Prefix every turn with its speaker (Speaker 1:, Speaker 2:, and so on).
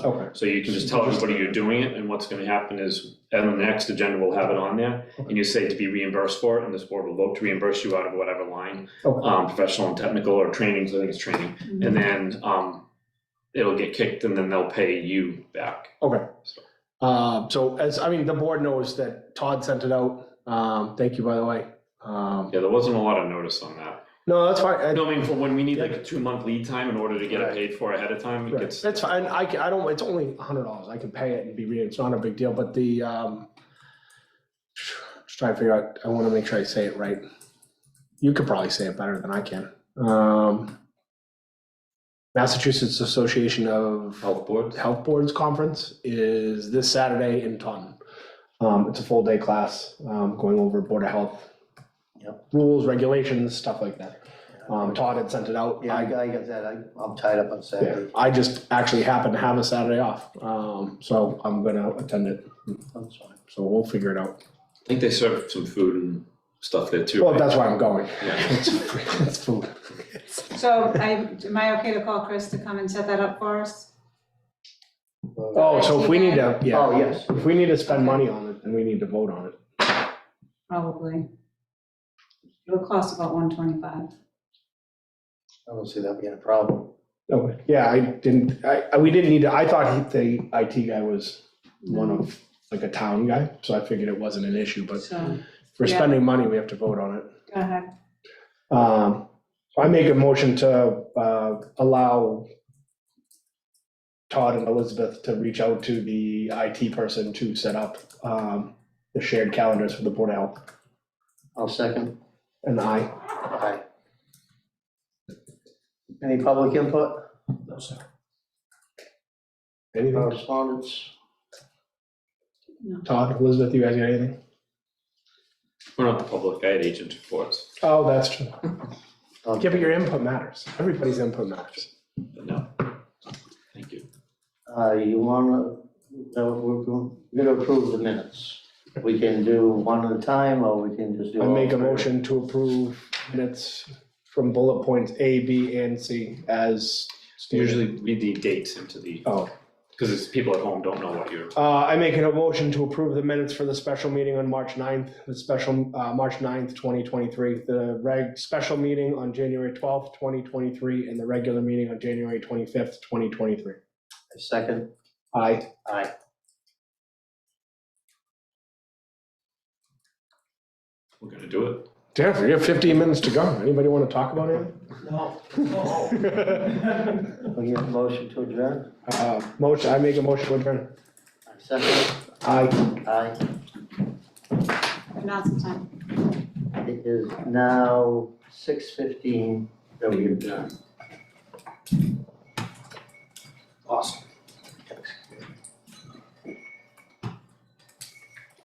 Speaker 1: Okay.
Speaker 2: So you can just tell everybody you're doing it, and what's gonna happen is, and the next agenda will have it on there, and you say to be reimbursed for it, and this board will vote to reimburse you out of whatever line,
Speaker 1: Okay,
Speaker 2: um, professional and technical, or trainings, I think it's training, and then, um, it'll get kicked, and then they'll pay you back.
Speaker 1: okay. Um, so as, I mean, the board knows that Todd sent it out. Um, thank you, by the way. Um,
Speaker 2: Yeah, there wasn't a lot of notice on that.
Speaker 1: no, that's fine. I-
Speaker 2: No, I mean, for when we need like a two-month lead time in order to get it
Speaker 1: Right.
Speaker 2: paid for ahead of time, it
Speaker 1: Right,
Speaker 2: gets,
Speaker 1: That's fine, I, ca- I don't, it's only a hundred dollars, I can pay it and be, re- it's not a big deal, but the, um, just trying to figure out, I wanna make sure I say it right. You could probably say it better than I can. Um, Massachusetts Association of
Speaker 2: health boards.
Speaker 1: Health Boards Conference is this Saturday in Taunton. Um, it's a full day class, um, going over Board of Health
Speaker 3: Yep.
Speaker 1: rules, regulations, stuff like that. Um, Todd had sent it out.
Speaker 3: Yeah, I,
Speaker 1: I-
Speaker 3: I got that, I, I'm tied up on
Speaker 1: yeah,
Speaker 3: Saturday.
Speaker 1: I just actually happen to have a Saturday off, um, so I'm gonna attend it,
Speaker 3: I'm sorry.
Speaker 1: so we'll figure it out.
Speaker 2: I think they serve some food and stuff there too.
Speaker 1: Well,
Speaker 2: right?
Speaker 1: that's why I'm going.
Speaker 2: Yeah.
Speaker 1: It's it's food.
Speaker 4: So I, am I okay to call Chris to come and set that up for us?
Speaker 3: Uh,
Speaker 1: Oh, so if we need to,
Speaker 3: Oh,
Speaker 1: yeah,
Speaker 3: yes,
Speaker 1: if we need to spend money on it, then we need to vote on it.
Speaker 4: Probably. It'll cost about one twenty-five.
Speaker 3: I don't see that being a problem.
Speaker 1: Okay, yeah, I didn't, I, I- we didn't need to, I thought he- the IT guy was one
Speaker 4: Mm.
Speaker 1: of, like a town guy, so I figured it wasn't an issue, but
Speaker 4: So, go
Speaker 1: if we're
Speaker 4: Yeah.
Speaker 1: spending money, we have to vote on it.
Speaker 4: ahead.
Speaker 1: Um, so I make a motion to, uh, allow Todd and Elizabeth to reach out to the IT person to set up, um, the shared calendars for the Board of Health.
Speaker 3: I'll second.
Speaker 1: And I,
Speaker 3: Aye. Any public input? No, sir. Oh.
Speaker 1: anything,
Speaker 3: Correspondence?
Speaker 1: Todd, Elizabeth, you guys got anything?
Speaker 2: We're not the public, I had agent reports,
Speaker 1: Oh, that's true.
Speaker 3: Um,
Speaker 1: Yeah, but your input matters. Everybody's input matters.
Speaker 2: but no. Thank you.
Speaker 3: Uh, you wanna, uh, we're go- we're gonna approve the minutes. We can do one at a time, or we can just do.
Speaker 1: I
Speaker 3: all
Speaker 1: make a
Speaker 3: three.
Speaker 1: motion to approve minutes from bullet points A, B, and C as usually.
Speaker 2: Usually read the dates into the,
Speaker 1: Oh,
Speaker 2: because it's, people at home don't know what you're,
Speaker 1: Uh, I make a motion to approve the minutes for the special meeting on March 9th, the special, uh, March 9th, twenty twenty-three, the reg, special meeting on January twelfth, twenty twenty-three, and the regular meeting on January twenty-fifth, twenty twenty-three.
Speaker 3: A Second,
Speaker 1: Aye.
Speaker 3: aye.
Speaker 2: we're gonna do it.
Speaker 1: Jennifer, you have fifteen minutes to go. Anybody want to talk about
Speaker 3: No.
Speaker 1: it?
Speaker 3: We get a motion to adjourn?
Speaker 1: Uh, motion, I make a motion to adjourn.
Speaker 3: I Second,
Speaker 1: Aye.
Speaker 3: aye.
Speaker 4: Now's the time.
Speaker 3: It is now six fifteen that we adjourn.